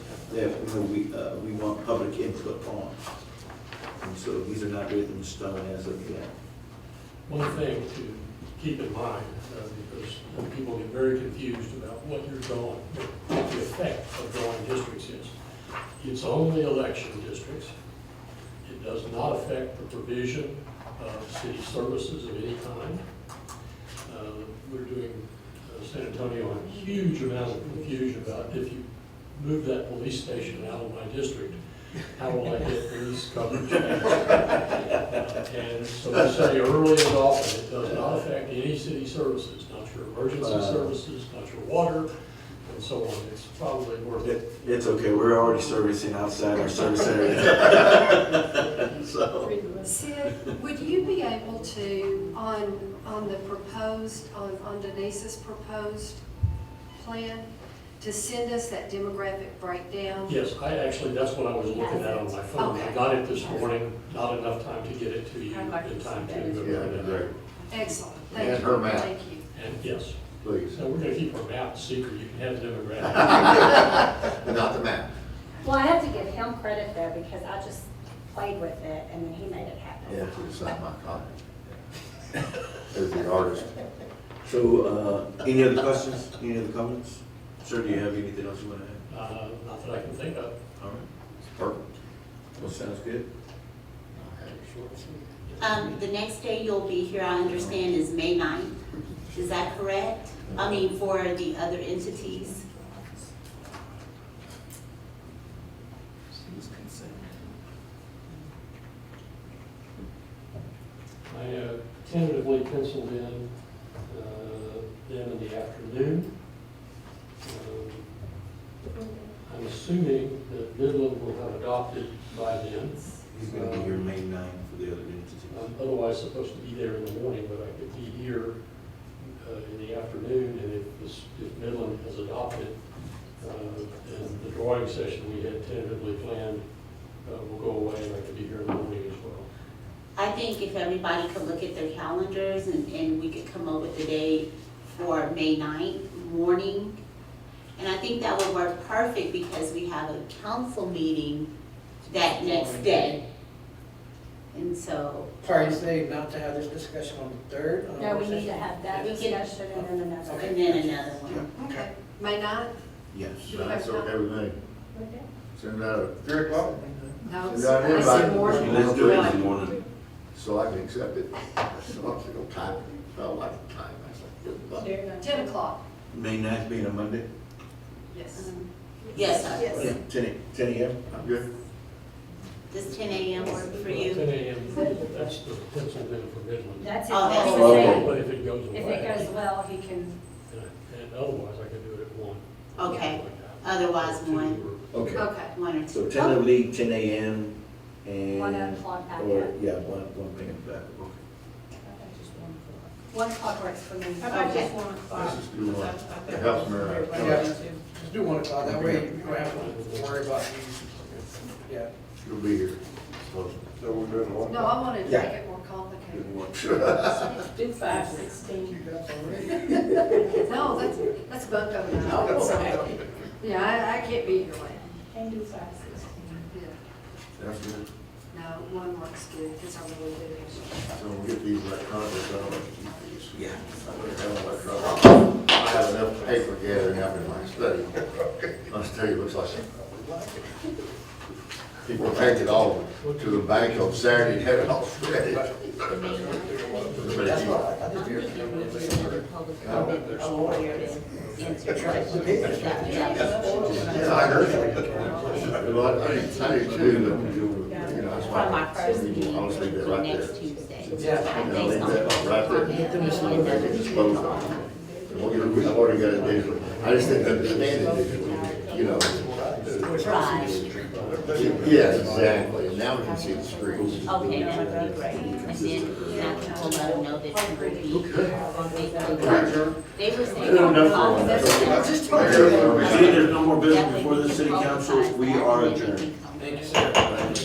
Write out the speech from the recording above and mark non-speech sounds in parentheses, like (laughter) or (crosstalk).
that we, we, uh, we want public input on. And so these are not written in stone as of yet. One thing to keep in mind, uh, because people get very confused about what you're drawing, what the effect of drawing districts is. It's only election districts. It does not affect the provision of city services of any kind. Uh, We're doing uh, San Antonio a huge amount of confusion about if you move that police station out of my district, how will I get police coverage? And so we say early and often, it does not affect any city services, not your emergency Uh. services, not your water, and so on. It's probably worth it. It, it's okay, we're already servicing outside our service area. (laughs) So, Sid, would you be able to, on, on the proposed, on on Denise's proposed plan, to send us that demographic breakdown? Yes, I actually, that's what I was looking at on my phone. I got it this morning, not enough time to get it to you I'd like in to time see to. that. read it. Excellent, thank And her you, map. thank you. And yes, (laughs) please, so we're gonna keep our map secret, you can have the demographic. but not the map. Well, I have to give him credit though, because I just played with it and then he made it happen. Yeah, it's not my copy. As the artist. so, uh, any other questions, any other comments? Sir, do you have anything else you wanna add? Uh, Not that I can think of. All right, Perfect. well, sounds good. Um, the next day you'll be here, I understand, is May 9th. Is that correct? I mean, for the other entities? I uh, tentatively penciled in uh, them in the afternoon. Um, I'm assuming that Midland will have adopted by then. He's gonna be here May 9th for the other entities. I'm otherwise supposed to be there in the morning, but I could be here uh, in the afternoon, and if this, if Midland has adopted, uh, then the drawing session we had tentatively planned uh, will go away, and I could be here in the morning as well. I think if everybody could look at their calendars and, and we could come up with a day for May 9th morning. And I think that would work perfect because we have a council meeting that next day. And so, Parties say not to have this discussion on the third? Uh, on No, the we need to session? have that We can- discussion and then another. and then another one. Okay, May ninth? Yes. That's okay with me. Send out a three o'clock, No, Is that I said everybody? more. Let's do it in the morning. so I can accept it. So I'm gonna time, it. felt like time, I was like, good luck. Ten o'clock, May 9th being a Monday? yes. Um, Yes, sir. Yeah, Ten, a- ten AM? I'm good. does ten AM work for Ten you? AM, that's the penciled in for Midland. That's it. Oh, that's If the it- same. But if it goes away. If it goes well, he can, and- And otherwise, I could do it at one. Okay, Something like that. otherwise Two one, or- Okay, Okay, one or so two. tentatively ten AM and. One o'clock back Or, up. yeah, one, one thing back, okay. one clock works for me. How about Okay. just one o'clock? Let's just do one. I- I think It helps me out. everybody Yeah. does too. Just do one o'clock, that way you don't have to worry about, yeah. You'll be here. So we're doing one? no, I wanted to Yeah. make it more complicated. Do five sixteen. No, that's, that's bunko Oh, now. Yeah, I, I can't be your way. Can do five sixteen. Yeah. (laughs) That's good. No, one works good, because I really do. So we'll get these electronics out. Yeah. I'm gonna have electronics. I have enough paper gathering up in my study. My study looks like people take it all to the bank on Saturday and have it all shredded. That's why I got I'm the beer. thinking we should do the public comment. Oh, there it is. Yeah, I heard. Well, I didn't tell you too, but, you know, that's why. From our first meeting I'll just leave that to right next there. Tuesday. Yeah. I Yeah, leave think so. that right there. And then it's closed off. And we'll get, we've already got it digital. I just didn't understand it digitally, you know. Right. Yes, exactly. And Now we can see the screen. Okay, that would be great. And then I will let them know that you will be. They they were saying. Good enough for one. That's- Just Very talking. well. Seeing there's no more business before the city council, we are adjourned. Thank you, sir.